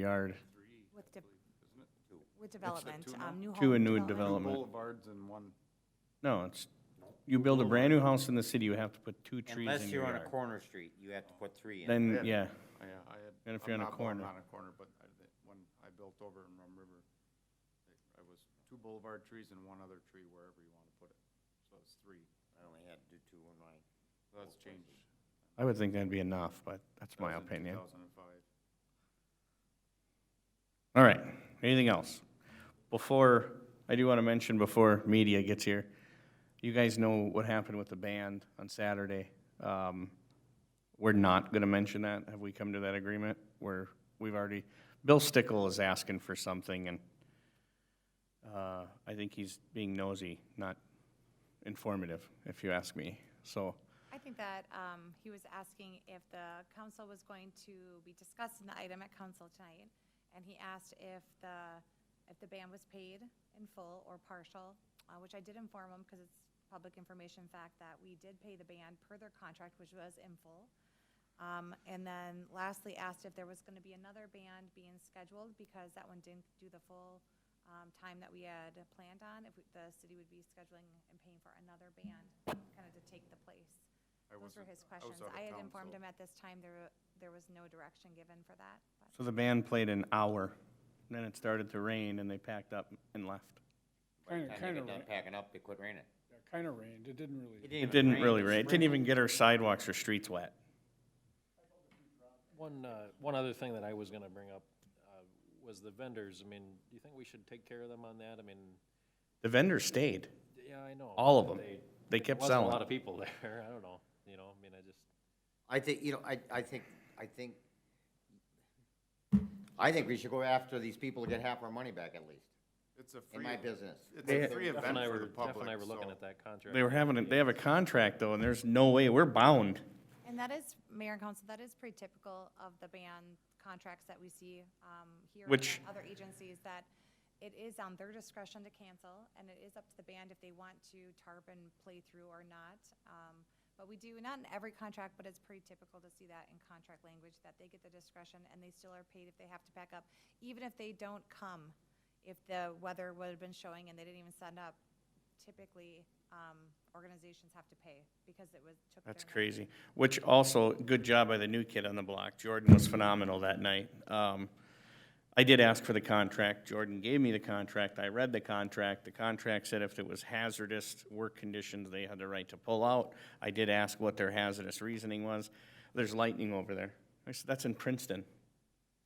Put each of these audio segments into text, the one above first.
yard, With, de- with development, two now? um, new home. two and new development. development. Boulevards and one, oh, No, it's, you build a brand new house in the city, you have to put two trees Unless in you're your on a yard. corner street, you have to put three in. Then, yeah, yeah, I had. And if I'm you're on a not- well, I'm corner. Not on a corner, but I- the one I built over in Rum River, I- I was two boulevard trees and one other tree wherever you want to put it. So it's three. I only had to do two in mine. So That's changed. I would think that'd be enough, but that's That my was in opinion. 2005. All right, anything else? Before, I do want to mention before media gets here, you guys know what happened with the band on Saturday. Um, We're not going to mention that. Have we come to that agreement? We're, we've already, Bill Stickle is asking for something and uh, I think he's being nosy, not informative, if you ask me. So, I think that, um, he was asking if the council was going to be discussing the item at council tonight, and he asked if the, if the ban was paid in full or partial, uh, which I did inform him, because it's public information fact that we did pay the ban per their contract, which was in full. Um, and then lastly, asked if there was gonna be another band being scheduled, because that one didn't do the full, um, time that we had planned on, if we- the city would be scheduling and paying for another band, kinda to take the place. I Those were wasn't- his I was questions. out of I had town, informed so- him at this time, there, wa- there was no direction given for that, but so the band played an hour, then it started to rain and they packed up and left. By the Kinda- time they kinda got done right. packing up, it quit raining. Kind of rained, it didn't really, It didn't really rain. It's It didn't even raining. get our sidewalks or streets wet. One, uh, one other thing that I was gonna bring up, uh, was the vendors. I mean, do you think we should take care of them on that? I mean, The vendors stayed, yeah, I know. all of but them. they- They there kept wasn't A lot selling. of people there. I don't know, you know, I mean, I just, I think, you know, I, I think, I think, I think we should go after these people to get half our money back at least, It's a free. in my business. It's They- a free Jeff and event I for the were, Jeff public, and I were looking so- at that contract. They were having, a- they have a contract though, and there's no way, we're bound. And that is, Mayor and Council, that is pretty typical of the ban contracts that we see um, here and Which- at other agencies, that it is on their discretion to cancel, and it is up to the band if they want to tarp and play through or not. Um, But we do, not in every contract, but it's pretty typical to see that in contract language, that they get the discretion and they still are paid if they have to pack up, even if they don't come, if the weather would have been showing and they didn't even send up, typically um, organizations have to pay because it was, took their That's money. crazy. Which also, good job by the new kid on the block. Jordan was phenomenal that night. Um, I did ask for the contract. Jordan gave me the contract. I read the contract. The contract said if it was hazardous work conditions, they had the right to pull out. I did ask what their hazardous reasoning was. There's lightning over there. I said, that's in Princeton.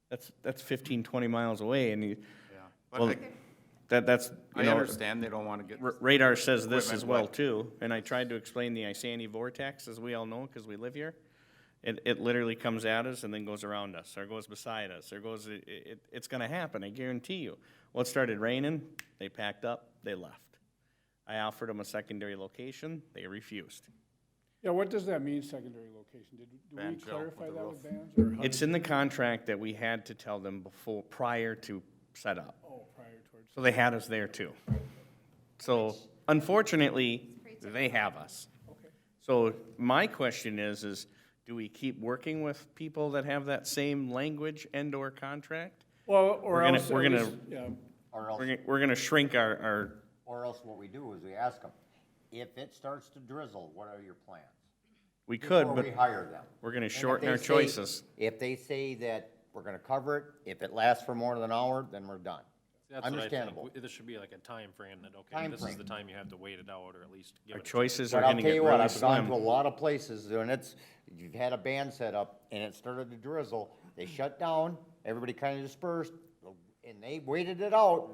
That's, that's 15, 20 miles away and you, Yeah. Well, But that, that's, I, you I know, understand they don't want to get, r- radar says this Equipment as well wet. too, and I tried to explain the Isani vortex, as we all know, because we live here. It, it literally comes at us and then goes around us, or goes beside us, or goes, it, it, it's gonna happen, I guarantee you. Well, it started raining, they packed up, they left. I offered them a secondary location, they refused. yeah, what does that mean, secondary location? Did, do we Band shell clarify with a that with roof. bands or? how It's did- in the contract that we had to tell them before, prior to setup, Oh, prior towards, so they had us there too. So unfortunately, they have us. okay. So my question is, is do we keep working with people that have that same language and/or contract? Well, or gonna- else, at we're gonna- least, yeah, Or else, We're, gonna- we're gonna shrink our, our, or else what we do is we ask them, if it starts to drizzle, what are your plans? we could, Before we but hire them. we're gonna And if shorten they our say- choices. If they say that we're gonna cover it, if it lasts for more than an hour, then we're done. that's what I think. Understandable. We- This should be like a time frame that, okay, this is Timeframe. the time you have to wait it out, or at least give our it. a- choices are But I'll gonna tell get you what, really I've gone to a slim. lot of places, and it's, you've had a band set up, and it started to drizzle, they shut down, everybody kinda dispersed, and they waited it out.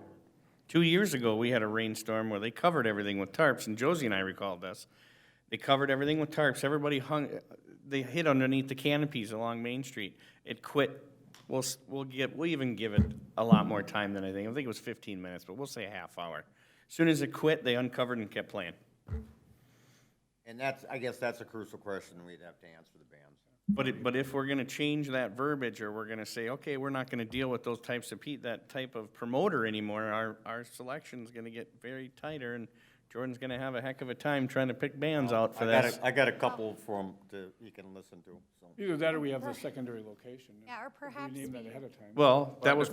Two years ago, we had a rainstorm where they covered everything with tarps, and Josie and I recalled this. They covered everything with tarps, everybody hung, they hid underneath the canopies along Main Street. It quit, we'll, s- we'll get, we'll even give it a lot more time than I think, I think it was fifteen minutes, but we'll say a half hour. Soon as it quit, they uncovered and kept playing. And that's, I guess that's a crucial question we'd have to answer the bands. But it, but if we're gonna change that verbiage, or we're gonna say, okay, we're not gonna deal with those types of pe, that type of promoter anymore, our, our selection's gonna get very tighter, and Jordan's gonna have a heck of a time trying to pick bands out for I got this. a, I got a couple from, to, you can listen to, so. Either that or we have the secondary location. Yeah, or We perhaps name that we- ahead of time. Well, that was